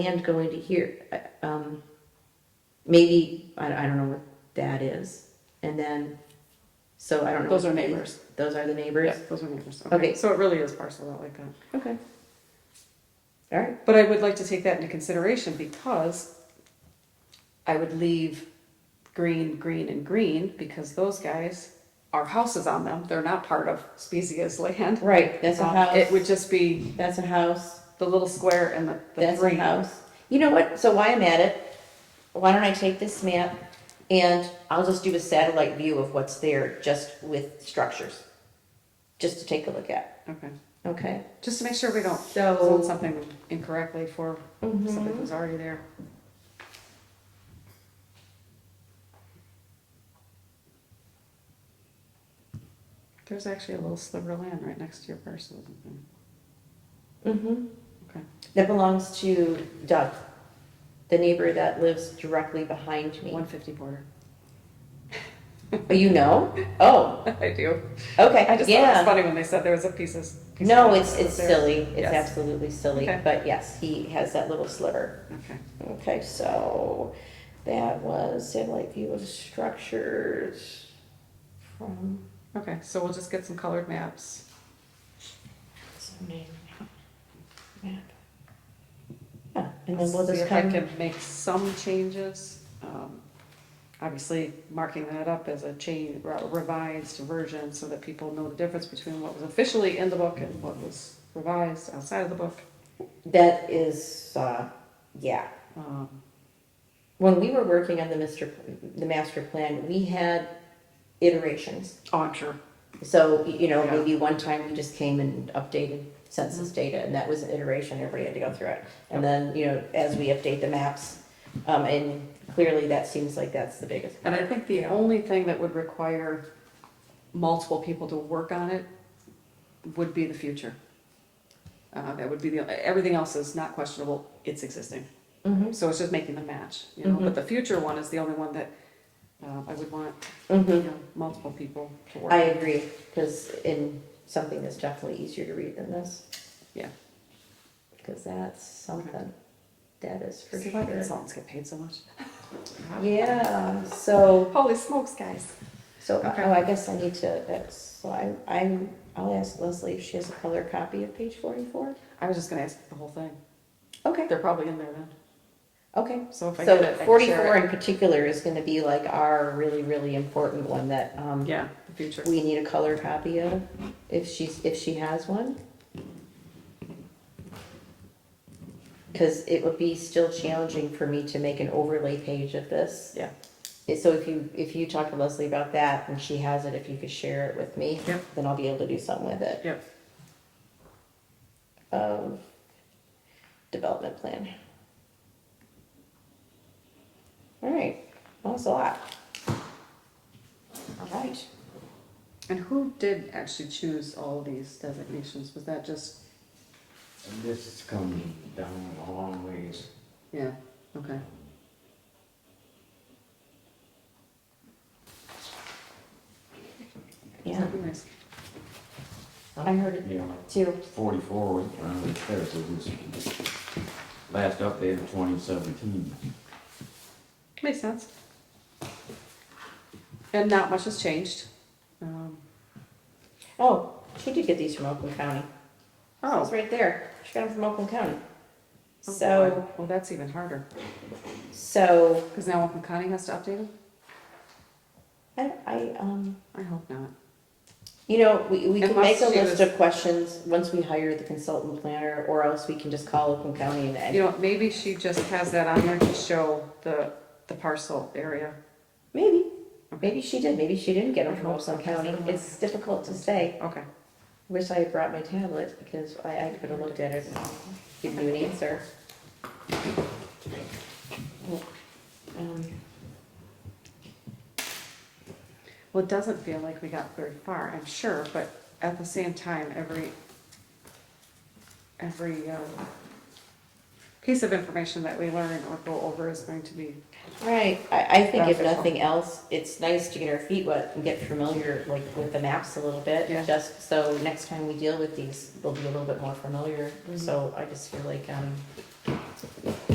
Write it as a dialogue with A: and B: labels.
A: and going to here, uh, um, maybe, I, I don't know what that is. And then, so I don't know.
B: Those are
A: what-
B: neighbors.
A: Those are the neighbors?
B: Yeah, those are neighbors.
A: Okay.
B: Okay, so it really is parceled out like that.
A: Okay. All right,
B: But I would like to take that into consideration because I would leave green, green, and green because those guys are houses on them. They're not part of Spezia's land.
A: right, that's a
B: Um,
A: house,
B: It would just be
A: that's a house,
B: the little square and the, the
A: that's a
B: green.
A: house. You know what, so why I'm at it, why don't I take this map and I'll just do a satellite view of what's there, just with structures, just to take a look at,
B: Okay,
A: okay?
B: just to make sure we don't
A: So-
B: zone something incorrectly for something that's already there. There's actually a little sliver of land right next to your parcel, isn't there?
A: Mm-hmm.
B: Okay.
A: That belongs to Doug, the neighbor that lives directly behind me.
B: One fifty border.
A: Oh, you know? Oh,
B: I do.
A: okay,
B: I just thought it was
A: yeah.
B: funny when they said there was a piece of. piece of
A: No,
B: land
A: it's,
B: that was
A: it's
B: there.
A: silly. It's
B: Yes.
A: absolutely silly.
B: Okay.
A: But yes, he has that little sliver.
B: Okay,
A: Okay, so that was satellite view of structures from
B: okay, so we'll just get some colored maps.
A: zoning map. Yeah, and then we'll
B: See
A: just
B: if I
A: come,
B: can make some changes. Um, Obviously, marking that up as a change, revised version, so that people know the difference between what was officially in the book and what was revised outside of the book.
A: that is, uh, yeah.
B: Um,
A: When we were working on the Mr., P- the master plan, we had iterations.
B: Oh, I'm sure.
A: So, y- you know,
B: Yeah. Mm-hmm.
A: maybe one time we just came and updated census data, and that was an iteration, everybody had to go through it. And then, you know, as we update the maps, um, and clearly that seems like that's the biggest.
B: And I think the only thing that would require multiple people to work on it would be the future. Uh, that would be the, everything else is not questionable, it's existing.
A: Mm-hmm,
B: So it's just making the match, you know,
A: Mhm.
B: but the future one is the only one that, uh, I would want, you
A: mm-hmm,
B: know, multiple people to work.
A: I agree, because in something that's definitely easier to read than this.
B: Yeah.
A: Because that's something, that is for
B: See why
A: sure.
B: consultants get paid so much.
A: Yeah, so.
B: Holy smokes, guys.
A: So,
B: Okay.
A: oh, I guess I need to, that's, so I'm, I'm, I'll ask Leslie if she has a color copy of page forty-four.
B: I was just gonna ask the whole thing.
A: Okay,
B: They're probably in there then.
A: okay.
B: So if I get it, I
A: So
B: can
A: forty-four
B: share it.
A: in particular is gonna be like our really, really important one that, um,
B: Yeah, the future.
A: we need a color copy of, if she's, if she has one. Cause it would be still challenging for me to make an overlay page of this.
B: Yeah.
A: So if you, if you talk to Leslie about that and she has it, if you could share it with me,
B: Yep.
A: then I'll be able to do something with it.
B: Yep.
A: of development plan. All right, that was a lot. All right,
B: And who did actually choose all of these designations? Was that just,
C: And This has come down a long ways.
B: yeah, okay.
A: yeah,
B: Nice.
A: I heard it
C: You know,
A: too.
C: forty-four was around the terrace, it was last update of twenty seventeen.
B: Makes sense. And not much has changed. Um,
A: Oh, she did get these from Oakland County. It was
B: Oh.
A: right there. She got them from Oakland County.
B: oh,
A: So,
B: Well, that's even harder,
A: so,
B: because now Oakland County has to update them?
A: I, I, um,
B: I hope not.
A: you know, we, we can make
B: Unless
A: a
B: she
A: list
B: was-
A: of questions once we hire the consultant planner, or else we can just call Oakland County and
B: You
A: add.
B: know, maybe she just has that on there to show the, the parcel area.
A: Maybe,
B: Okay.
A: maybe she did, maybe she didn't get them
B: I
A: from
B: hope so.
A: Oakland County. It's difficult to say.
B: Okay,
A: Wish I had brought my tablet because I, I could have looked at it and given you an answer. Um,
B: well, it doesn't feel like we got very far, I'm sure, but at the same time, every, every, um, piece of information that we learn or go over is going to be,
A: Right, I, I think if
B: Beneficial.
A: nothing else, it's nice to get our feet wet and get familiar like with the maps a little bit.
B: Yeah.
A: Just so next time we deal with these, we'll be a little bit more familiar.
B: Mhm.
A: So I just feel like, um,